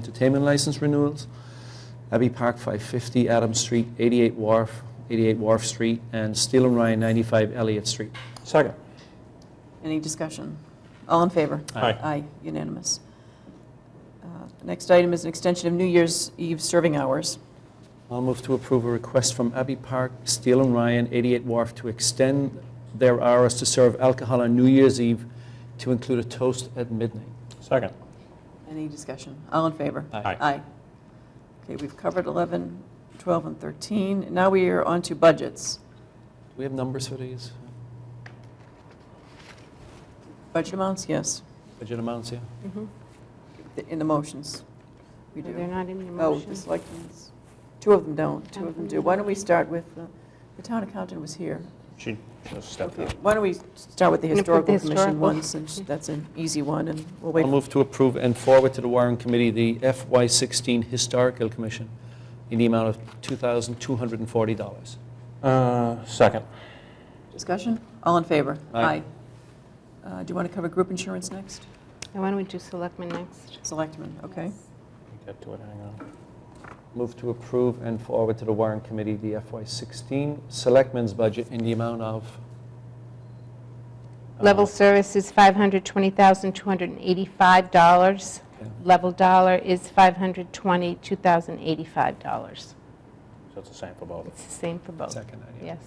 entertainment license renewals. Abbey Park 550, Adams Street, 88 Wharf, 88 Wharf Street, and Steel and Ryan 95 Elliott Street. Second. Any discussion? All in favor? Aye. Aye, unanimous. Uh, the Next item is an extension of New Year's Eve serving hours. I'll move to approve a request from Abbey Park, Steel and Ryan, 88 Wharf to extend their hours to serve alcohol on New Year's Eve to include a toast at midnight. Second. Any discussion? All in favor? Aye. Aye. Okay, we've covered 11, 12, and 13. Now we are on to budgets. Do we have numbers for these? Budget amounts, yes, Budget amounts, yeah? in the motions. Mm-hmm. We They're do. not in your Oh, motion. the selectmen's, two of them don't, two of them do. Why don't we start with, uh, the town accountant was here. She just stepped Okay, out. why don't we start with the Gonna put the historical commission historical- one, since that's an easy one, and we'll wait I'll move to approve and forward to the Warren Committee the FY16 Historical Commission in the amount of $2,240. Uh, Second. for discussion. All in favor? Aye. Uh, Do you want to cover group insurance next? Now, Why don't we do selectmen next? Selectmen, okay. Get to it, hang on. Move to approve and forward to the Warren Committee the FY16 Selectmen's Budget in the amount of... uh, Um, Level service is $520,285. Okay. Level dollar is $520,285. So it's the same for both. It's the same for both. Second, yeah. Yes,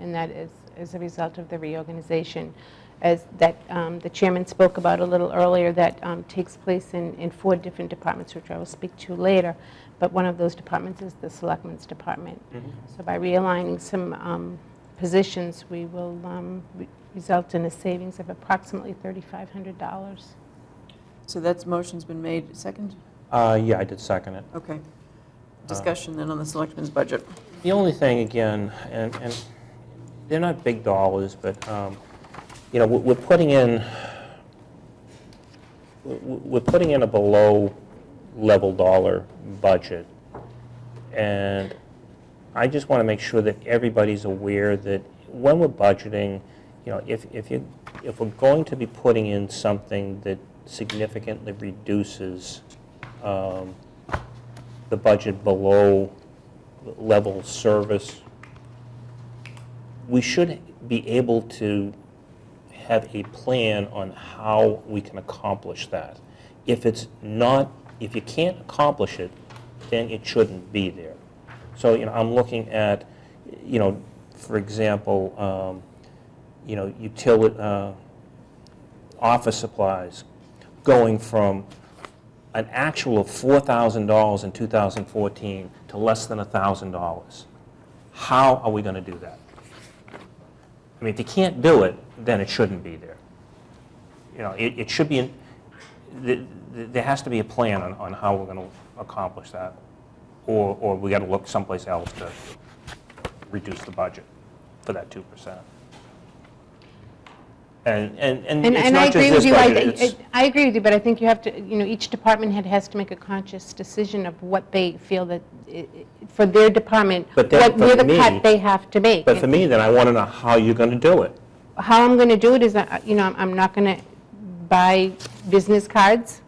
and that is as a result of the reorganization, as that um, the chairman spoke about a little earlier, that um, takes place in, in four different departments, which I will speak to later, but one of those departments is the Selectmen's Department. Mm-hmm. So by realigning some um, positions, we will um, re- result in a savings of approximately $3,500. So that's, motion's been made, second? Uh, Yeah, I did second it. Okay. Discussion then on the selectmen's budget. The only thing, again, and, and they're not big dollars, but, um, you know, we're we're putting in, we're- we're putting in a below-level dollar budget. And I just want to make sure that everybody's aware that when we're budgeting, you know, if, if you, if we're going to be putting in something that significantly reduces um, the budget below level service, we should be able to have a plan on how we can accomplish that. If it's not, if you can't accomplish it, then it shouldn't be there. So, you know, I'm looking at, you know, for example, um, you know, utility, uh, office supplies, going from an actual of $4,000 in 2014 to less than $1,000. How are we going to do that? I mean, if you can't do it, then it shouldn't be there. You know, it, it should be, in- th- th- there has to be a plan on, on how we're going to accomplish that, or, or we got to look someplace else to reduce the budget for that 2%. And, and, and And it's and I not just agree with this you. I- budget, I- it's- I agree with you, but I think you have to, you know, each department head has to make a conscious decision of what they feel that, i- i- for their department, But then what, for where the me- cut they have to make. But for me, then, I want to know how you're going to do it. How I'm going to do it is, I- you know, I'm- I'm not going to buy business cards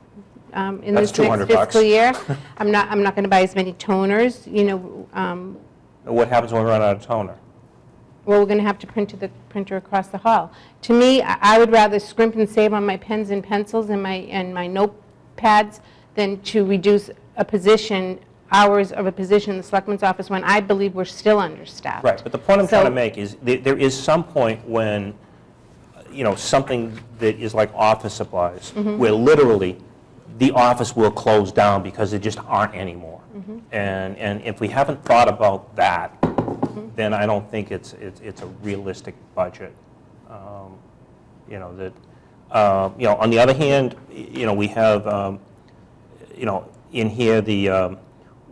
um, in That's this next 200 bucks. fiscal year. I'm not, I'm not going to buy as many toners, you know, um, What happens when we run out of toner? well, we're going to have to print to the printer across the hall. To me, I I would rather scrimp and save on my pens and pencils and my, and my notepads than to reduce a position, hours of a position in the selectman's office when I believe we're still understaffed. Right, but the point I'm trying to So- make is, there there is some point when, you know, something that is like office supplies, where literally, the office will close down because there just aren't any more. And, and if we haven't thought about that, then I don't think it's, it's it's a realistic budget. Um, You know, that, uh, you know, on the other hand, y- you know, we have, um, you know, in here, the, um,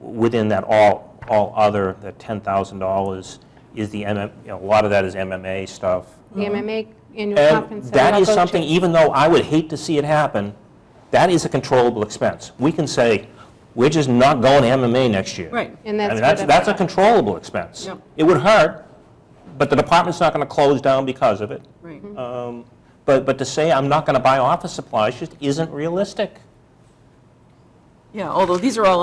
within that all, all other, the $10,000 is the, MM you know, a lot of that is MMA stuff. The MMA annual And conference. that I'll is go to. something, even though I would hate to see it happen, that is a controllable expense. We can say, we're just not going to MMA next year. Right. And e- I mean, that's that's, what that's a I'm- controllable expense. Yep. It would hurt, but the department's not going to close down because of it. Right. Um, But, but to say I'm not going to buy office supplies just isn't realistic. Yeah, although these are all